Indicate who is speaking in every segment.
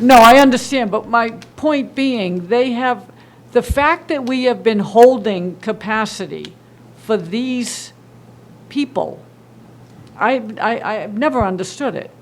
Speaker 1: No, I understand, but my point being, they have, the fact that we have been holding capacity for these people, I, I, I've never understood it.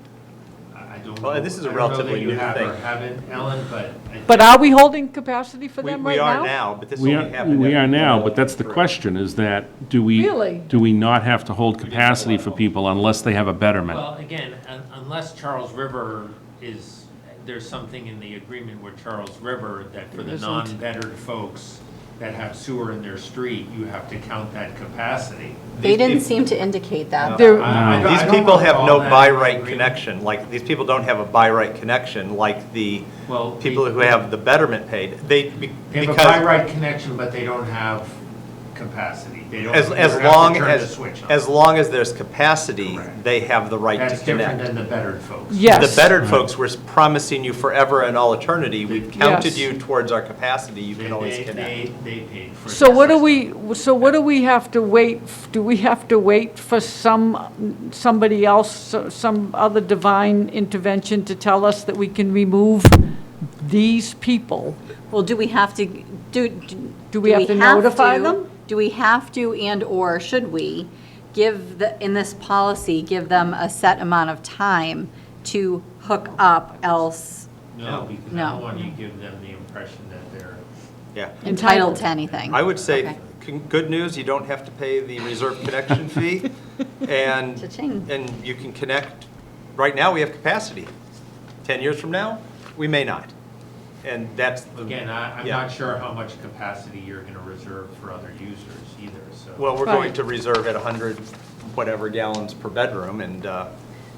Speaker 2: I I don't know.
Speaker 3: Well, this is a
Speaker 2: I don't know that
Speaker 3: relatively
Speaker 2: you
Speaker 3: new
Speaker 2: have or
Speaker 3: thing.
Speaker 2: haven't, Ellen, but. I
Speaker 1: But
Speaker 2: think-
Speaker 1: are we holding capacity for
Speaker 3: We
Speaker 1: them
Speaker 3: we
Speaker 1: right
Speaker 3: are
Speaker 1: now?
Speaker 3: now, but this
Speaker 4: We
Speaker 3: only
Speaker 4: are,
Speaker 3: happened.
Speaker 4: we
Speaker 3: at-
Speaker 4: are now, but that's the question, is that, do we?
Speaker 1: Really?
Speaker 4: Do we not have to hold capacity for people unless they have a betterment?
Speaker 5: Well, again, un- unless Charles River is, there's something in the agreement with Charles River that for
Speaker 1: There
Speaker 5: the
Speaker 1: isn't.
Speaker 5: non-bettered folks that have sewer in their street, you have to count that capacity.
Speaker 6: They
Speaker 3: These
Speaker 6: didn't
Speaker 3: peop-
Speaker 6: seem to indicate that.
Speaker 1: There-
Speaker 5: I- I don't-
Speaker 3: Mm. These
Speaker 5: I don't
Speaker 3: people have
Speaker 5: recall
Speaker 3: no
Speaker 5: that
Speaker 3: by
Speaker 5: in the
Speaker 3: right
Speaker 5: agreement.
Speaker 3: connection, like, these people don't have a by right connection, like the
Speaker 5: Well, they-
Speaker 3: people who have the betterment paid. They, be-
Speaker 5: They have a by
Speaker 3: because,
Speaker 5: right connection, but they don't have capacity. They don't,
Speaker 3: as,
Speaker 5: they
Speaker 3: as
Speaker 5: don't have to
Speaker 3: long
Speaker 5: turn the
Speaker 3: as,
Speaker 5: switch on.
Speaker 3: as long as there's capacity,
Speaker 5: Correct.
Speaker 3: they have the right to
Speaker 5: That's different
Speaker 3: connect.
Speaker 5: than the bettered folks.
Speaker 1: Yes.
Speaker 3: The bettered folks, we're promising you forever and all eternity, we've counted
Speaker 1: Yes.
Speaker 3: you towards our capacity, you
Speaker 5: They,
Speaker 3: can always
Speaker 5: they-
Speaker 3: connect.
Speaker 5: they, they paid for.
Speaker 1: So what do
Speaker 5: this.
Speaker 1: we, so what do we have to wait, do we have to wait for some, somebody else, so- some other divine intervention to tell us that we can remove these people?
Speaker 6: Well, do we have to, do, do
Speaker 1: Do we have to notify them?
Speaker 6: Do we have to and/or should we give, the in this policy, give them a set amount of time to hook up else
Speaker 5: No, because I
Speaker 6: No.
Speaker 5: don't want you to give them the impression that they're.
Speaker 3: Yeah.
Speaker 6: entitled to anything?
Speaker 3: I would say,
Speaker 6: Okay.
Speaker 3: con- good news, you don't have to pay the reserve connection fee, and,
Speaker 6: Cha-ching.
Speaker 3: and you can connect, right now, we have capacity. 10 years from now, we may not, and that's the.
Speaker 5: Again, I, I'm
Speaker 3: yeah.
Speaker 5: not sure how much capacity you're gonna reserve for other users either, so.
Speaker 3: Well, we're
Speaker 1: Right.
Speaker 3: going to reserve at 100 whatever gallons per bedroom, and, uh,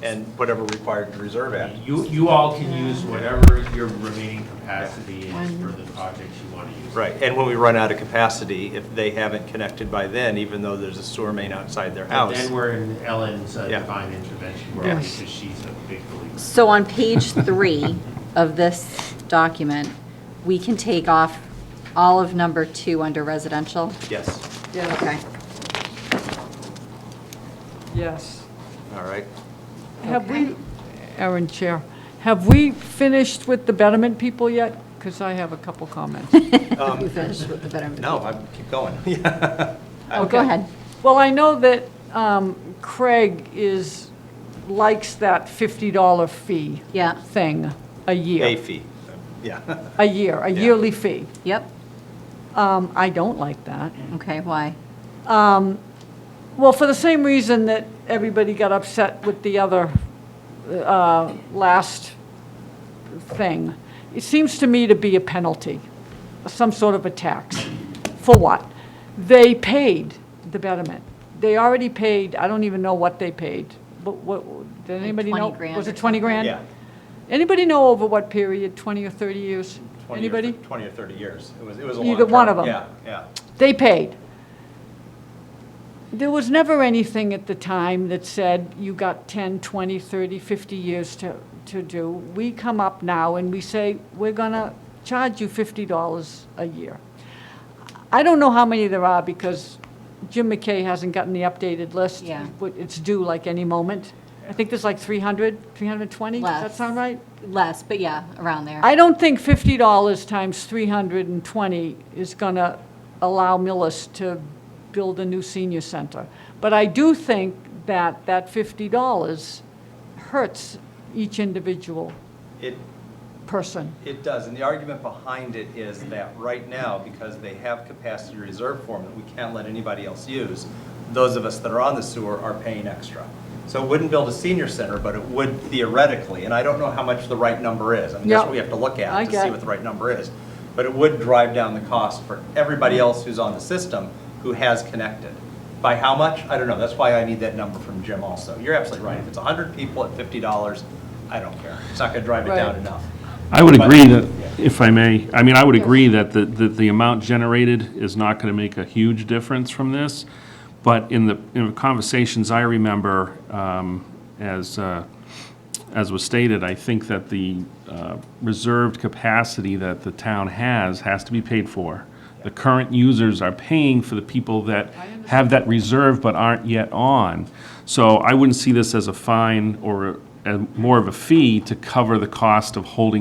Speaker 3: and whatever required to reserve at.
Speaker 5: You, you all can use whatever your remaining capacity is for the projects you wanna use.
Speaker 3: Right, and when we run out of capacity, if they haven't connected by then, even though there's a sewer main outside their
Speaker 5: But
Speaker 3: house.
Speaker 5: then we're in Ellen's uh,
Speaker 3: Yeah.
Speaker 5: divine intervention world, because she's a big believer.
Speaker 6: So on page three of this document, we can take off all of number two under residential?
Speaker 3: Yes,
Speaker 6: Okay.
Speaker 1: Yes.
Speaker 3: all right.
Speaker 1: Have we, Aaron Chair, have we finished with the betterment people yet? Because I have a couple comments.
Speaker 6: You finished with the betterment.
Speaker 3: Um, No, I keep going.
Speaker 6: Oh, go ahead.
Speaker 1: Well, I know that um, Craig is, likes that $50 fee.
Speaker 6: Yeah.
Speaker 1: Thing, a year.
Speaker 3: A fee, yeah.
Speaker 1: A year, a
Speaker 3: Yeah.
Speaker 1: yearly fee.
Speaker 6: Yep,
Speaker 1: Um, I don't like that.
Speaker 6: okay, why?
Speaker 1: Well, for the same reason that everybody got upset with the other uh, last thing. It seems to me to be a penalty, some sort of a tax. For what? They paid the betterment. They already paid, I don't even know what they paid, but what, did anybody know?
Speaker 6: 20 grand
Speaker 1: Was
Speaker 6: or
Speaker 1: it 20 grand?
Speaker 3: Yeah.
Speaker 1: Anybody know over what period, 20 or 30 years?
Speaker 3: 20 or-
Speaker 1: Anybody?
Speaker 3: 20 or 30 years. It was, it was a long
Speaker 1: Either one
Speaker 3: term.
Speaker 1: of 'em.
Speaker 3: Yeah, yeah.
Speaker 1: They paid. There was never anything at the time that said you got 10, 20, 30, 50 years to, to do. We come up now and we say, we're going to charge you $50 a year. I don't know how many there are because Jim McKay hasn't gotten the updated list.
Speaker 6: Yeah.
Speaker 1: But It's due like any moment. I think there's like 300, 320? Does that
Speaker 6: Less.
Speaker 1: sound right?
Speaker 6: Less, but yeah, around there.
Speaker 1: I don't think fifty dollars times three hundred and twenty is gonna allow Millis to build a new senior center. But I do think that that fifty dollars hurts each individual
Speaker 3: It,
Speaker 1: person.
Speaker 3: it does, and the argument behind it is that right now, because they have capacity reserve form that we can't let anybody else use, those of us that are on the sewer are paying extra. So it wouldn't build a senior center, but it would theoretically, and I don't know how much the right number is. I mean,
Speaker 1: Yeah.
Speaker 3: that's what we have to look
Speaker 1: I
Speaker 3: at to
Speaker 1: get-
Speaker 3: see what the right number is. But it would drive down the cost for everybody else who's on the system who has connected. By how much? I don't know. That's why I need that number from Jim also. You're absolutely right. If it's 100 people at $50, I don't care. It's not going to drive it down
Speaker 1: Right.
Speaker 3: enough.
Speaker 4: I would
Speaker 3: But-
Speaker 4: agree that, if I may, I mean, I would agree that the, that the amount generated is not gonna make a huge difference from this, but in the, in the conversations I remember, um, as, uh, as was stated, I think that the uh, reserved capacity that the town has, has to be paid for. The current users are paying for the people that have that reserve but aren't yet on. So I wouldn't see this as a fine or a- a- more of a fee to cover the cost of holding